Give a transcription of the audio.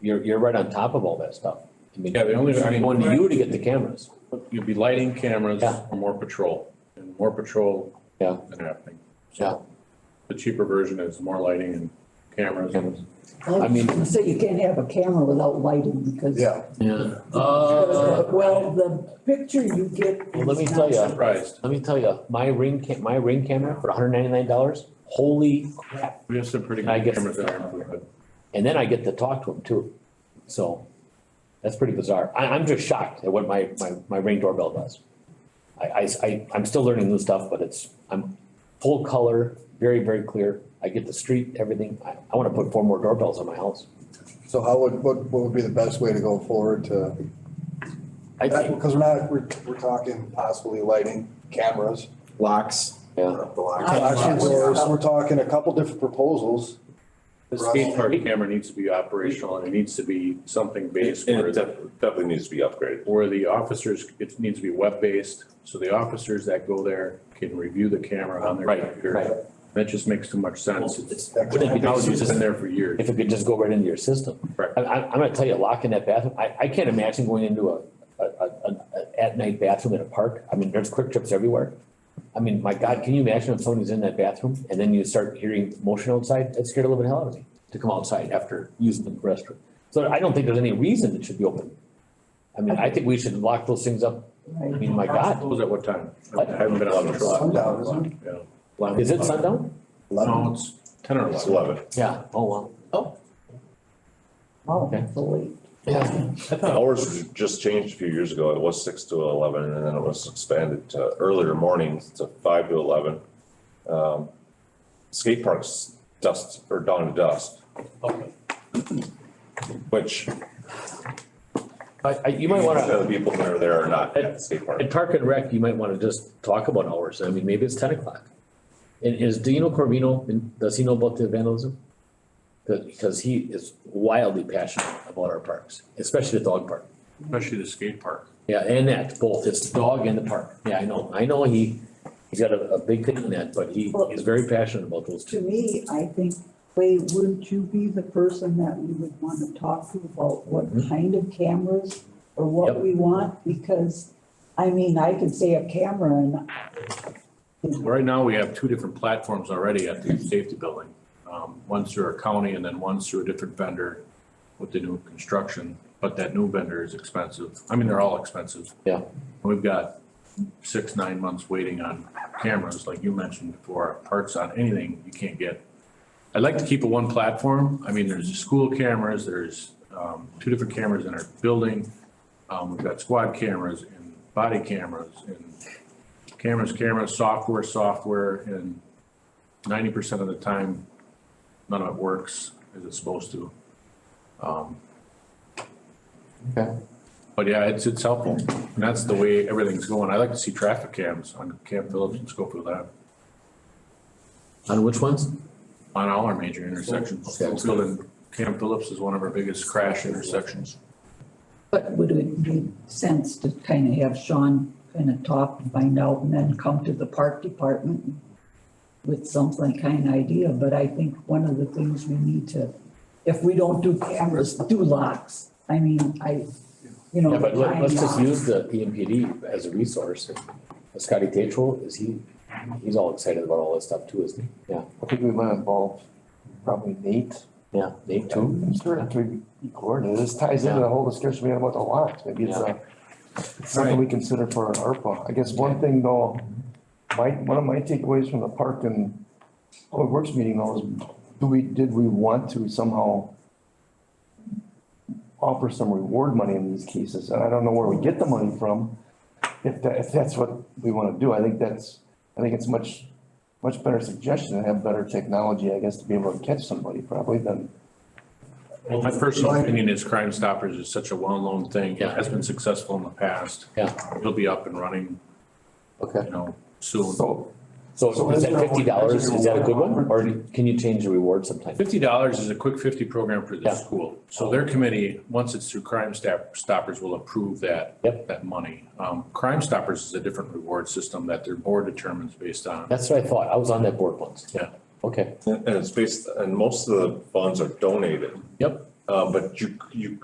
you're, you're right on top of all that stuff. I mean, Yeah, the only- I mean- I'm going to you to get the cameras. You'd be lighting cameras Yeah. for more patrol, and more patrol Yeah. than happening. Yeah. So The cheaper version is more lighting and cameras. Cameras. I mean- Oh, So you can't have a camera without lighting because. Yeah, Yeah. Uh, Uh, Well, the picture you get. Well, let me tell ya. Surprised, let me tell you, my ring ca- my ring camera for hundred ninety-nine dollars, holy crap. we have some pretty I good guess- cameras out there, but And then I get to talk to him too. So that's pretty bizarre. I, I'm just shocked at what my, my, my ring doorbell does. I, I, I, I'm still learning new stuff, but it's, I'm full color, very, very clear. I get the street, everything. I, I wanna put four more doorbells on my house. so how would, what, what would be the best way to go forward to, I think, because we're not, we're, we're talking possibly lighting cameras. Locks. yeah. The locks. Action doors, we're talking a couple different proposals. The skate park camera needs to be operational, and it needs to be something based And where it def- definitely needs to be upgraded. where the officers, it needs to be web-based, so the officers that go there can review the camera on their Right, computer. right. That just makes too much sense. It's Wouldn't it be nice if Technology's it's been just- there for years. if it could just go right into your system. Right. I, I, I'm gonna tell you, locking that bathroom, I, I can't imagine going into a, a, a, a- a at-night bathroom in a park. I mean, there's quick trips everywhere. I mean, my God, can you imagine if somebody's in that bathroom and then you start hearing motion outside? That scared a little bit hell out of me to come outside after using the restroom. So I don't think there's any reason it should be open. I mean, I think we should lock those things up. I Right. mean, Oh my God, Close at what time? I What? haven't been out in a while. Sundown, isn't it? Yeah. is it sundown? No, it's ten or It's eleven. eleven. Yeah, oh, wow. Oh, Okay. so late. Yeah, Hours was just changed a few years ago. It was six to eleven and then it was expanded to earlier mornings to five to eleven. Um, skate parks dust or dawn to dusk. Which I, I, you might wanna. The people that are there are not at the skate park. At Park and Rec, you might want to just talk about hours. I mean, maybe it's ten o'clock. And is Dino Corvino, and does he know about the vandalism? Because, because he is wildly passionate about our parks, especially the dog park. Especially the skate park. Yeah, and that, both, it's the dog and the park. Yeah, I know, I know he, he's got a, a big thing in that, but he is very passionate about those two. To me, I think, Clay, wouldn't you be the person that we would want to talk to about what Mhm. kind of cameras or what Yep. we want? Because, I mean, I could say a camera and. Right now, we have two different platforms already at the safety building. Um, one's through our county and then one's through a different vendor with the new construction, but that new vendor is expensive. I mean, they're all expensive. Yeah. And We've got six, nine months waiting on cameras, like you mentioned before, parts on anything you can't get. I'd like to keep it one platform. I mean, there's the school cameras, there's, um, two different cameras in our building. Um, we've got squad cameras and body cameras and cameras, cameras, software, software, and ninety percent of the time, none of it works as it's supposed to. Um, Okay. But yeah, it's, it's helpful, and that's the way everything's going. I like to see traffic cams on Camp Phillips and Schofield Ave, On which ones? on all our major intersections. Okay. Schofield and Camp Phillips is one of our biggest crash intersections. But would it make sense to kind of have Sean kind of talk and find out and then come to the park department with some kind of idea, but I think one of the things we need to, if we don't do cameras, do locks. I mean, I, you know. Yeah, but let, let's just time use the E EMPD as a resource. Uh, Scotty Tatro, is he, he's all excited about all this stuff too, isn't he? Yeah, I think we might involve probably Nate. yeah, Nate too. I'm sure it could be coordinated. This ties into the whole discussion we had about the locks. Maybe it's a, it's something we consider for our ARPA. I guess one thing though, my, one of my takeaways from the park and public works meeting though is, do we, did we want to somehow offer some reward money in these cases? And I don't know where we get the money from. If that, if that's what we want to do, I think that's, I think it's much, much better suggestion and have better technology, I guess, to be able to catch somebody probably than My personal opinion is Crime Stoppers is such a well-known thing. It has been successful in the past. Yeah. It'll be up and running, Okay. you know, soon. So, So So is is that there a- fifty dollars, is that a good one, reward? or can you change the reward sometime? Fifty dollars is a quick fifty program for the Yeah. school. So their committee, once it's through Crime Stop- Stoppers, will approve that. Yep. That money. Um, Crime Stoppers is a different reward system that their board determines based on. That's what I thought, I was on that board once. Yeah. Okay, And and it's based, and most of the funds are donated. Yep. Uh, but you, you